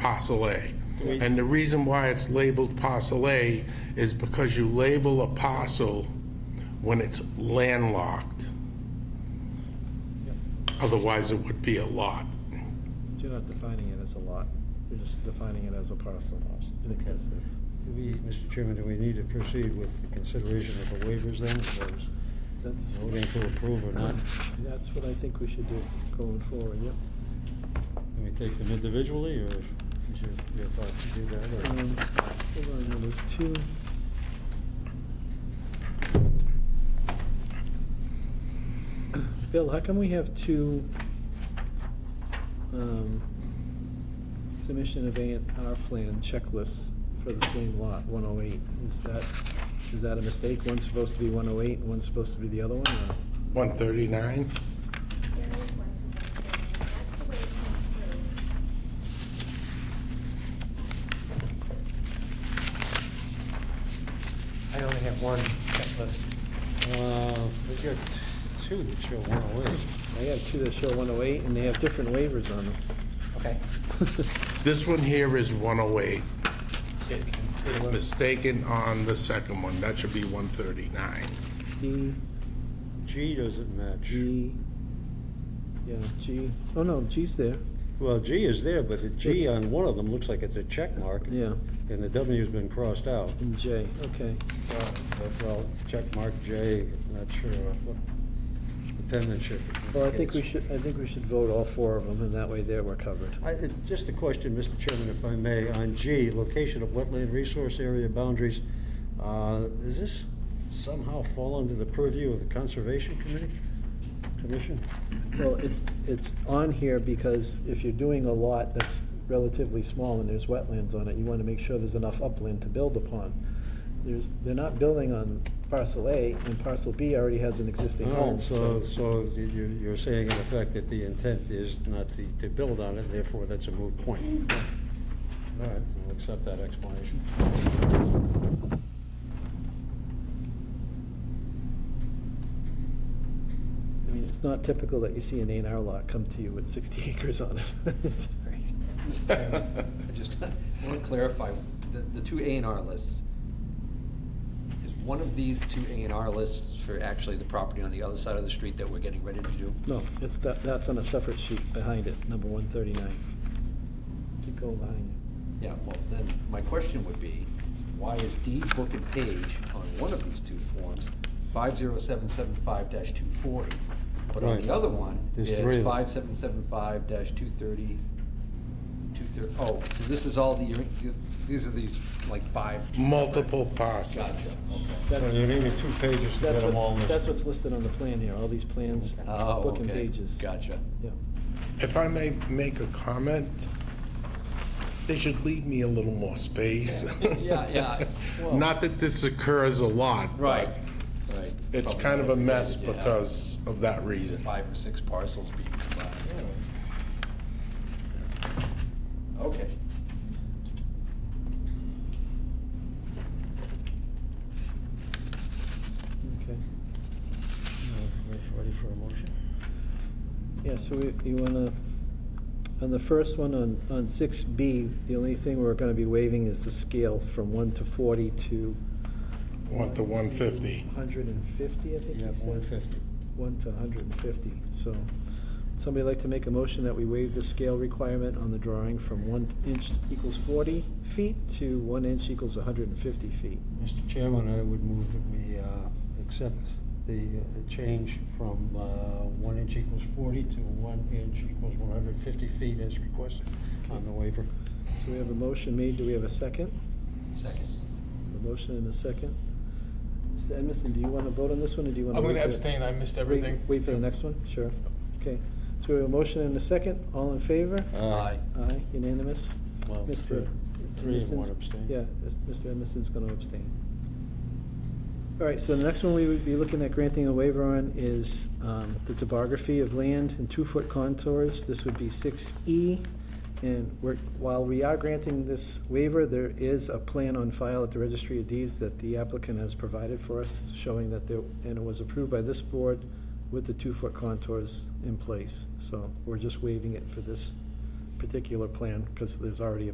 parcel A. And the reason why it's labeled parcel A is because you label a parcel when it's landlocked. Otherwise, it would be a lot. You're not defining it as a lot, you're just defining it as a parcel in existence. Do we, Mr. Chairman, do we need to proceed with the consideration of the waivers then, or is That's, voting to approve or not? that's what I think we should do going forward, yep. Can we take them individually, or is your, your thought to do that, or? Um, Hold on, now, there's two. Bill, how come we have two um, submission of A and R plan checklists for the same lot, 108? Is that, is that a mistake? One's supposed to be 108, and one's supposed to be the other one, or? 139? There is one from West Virginia. That's the way it came through. I only have one checklist. Uh, we got two that show one oh away. I have two that show 108, and they have different waivers on them. Okay. This one here is 108. It- It's mistaken on the second one. That should be 139. D, G doesn't match. G, yeah, G, oh no, G's there, Well, G is there, but the G It's- on one of them looks like it's a check mark, yeah, and the W's been crossed out. and J, okay. But, Well, check mark J, not sure what the penmanship. Well, I think we indicates. should, I think we should vote all four of them, and that way there we're covered. I- uh, Just a question, Mr. Chairman, if I may, on G, location of wetland resource area boundaries. Uh, Does this somehow fall under the purview of the Conservation Committee, Commission? Well, it's, it's on here because if you're doing a lot that's relatively small and there's wetlands on it, you want to make sure there's enough upland to build upon. There's, they're not building on parcel A, and parcel B already has an existing Oh, home, so. So, so you- you- you're saying in effect that the intent is not to, to build on it, therefore that's a moot point. All right, we'll accept that explanation. I mean, it's not typical that you see an A and R lot come to you with sixty acres on it. Mr. Chairman, I just want to clarify, the, the two A and R lists, is one of these two A and R lists for actually the property on the other side of the street that we're getting ready to do? No, it's, that, that's on a separate sheet behind it, number one thirty-nine. Keep going behind Yeah, well, then, my question would be, why is deed book and page on one of these two forms, five zero seven seven five dash two forty, but on Right. the other one, There's three of it's them. five seven seven five dash two thirty, two thir, oh, so this is all the, these are these, like, five. Multiple parcels. Gotcha, okay. you. That's- So you need me two pages to get That's them all what's, listed. that's what's listed on the plan here, all these plans, Oh, book and okay. pages. Gotcha. Yeah. If I may make a comment, they should leave me a little more space. Yeah, yeah. Well- Not that this occurs a lot. but Right, right. It's Probably kind of a mess yeah. because of that reason. Five or six parcels being combined. Okay. Okay. Ready for a motion? Yeah, so we, you wanna, on the first one, on, on six B, the only thing we're gonna be waiving is the scale from one to forty to One to 150. hundred and fifty, I think you Yeah, said? one fifty. One to hundred and fifty, so, somebody like to make a motion that we waive the scale requirement on the drawing from one inch equals forty feet to one inch equals hundred and fifty feet? Mr. Chairman, I would move that we uh, accept the uh, change from uh, one inch equals 40 to one inch equals 150 feet as requested on the waiver. So we have a motion made, do we have a second? Second. A motion and a second. Mr. Edmiston, do you wanna vote on this one, or do you wanna? I'm wait gonna for- abstain, I missed Wait- everything. Wait for the next one, sure. Okay, so we have a motion and a second, all in favor? Aye. Aye, unanimous. Well, Mr. three and one Edmiston's- abstain. Yeah, is- Mr. Edmiston's gonna abstain. All right, so the next one we would be looking at granting a waiver on is um, the topography of land and two-foot contours. This would be six E. And we're, while we are granting this waiver, there is a plan on file at the Registry of Deeds that the applicant has provided for us, showing that there, and it was approved by this board with the two-foot contours in place. So we're just waiving it for this particular plan, because there's already a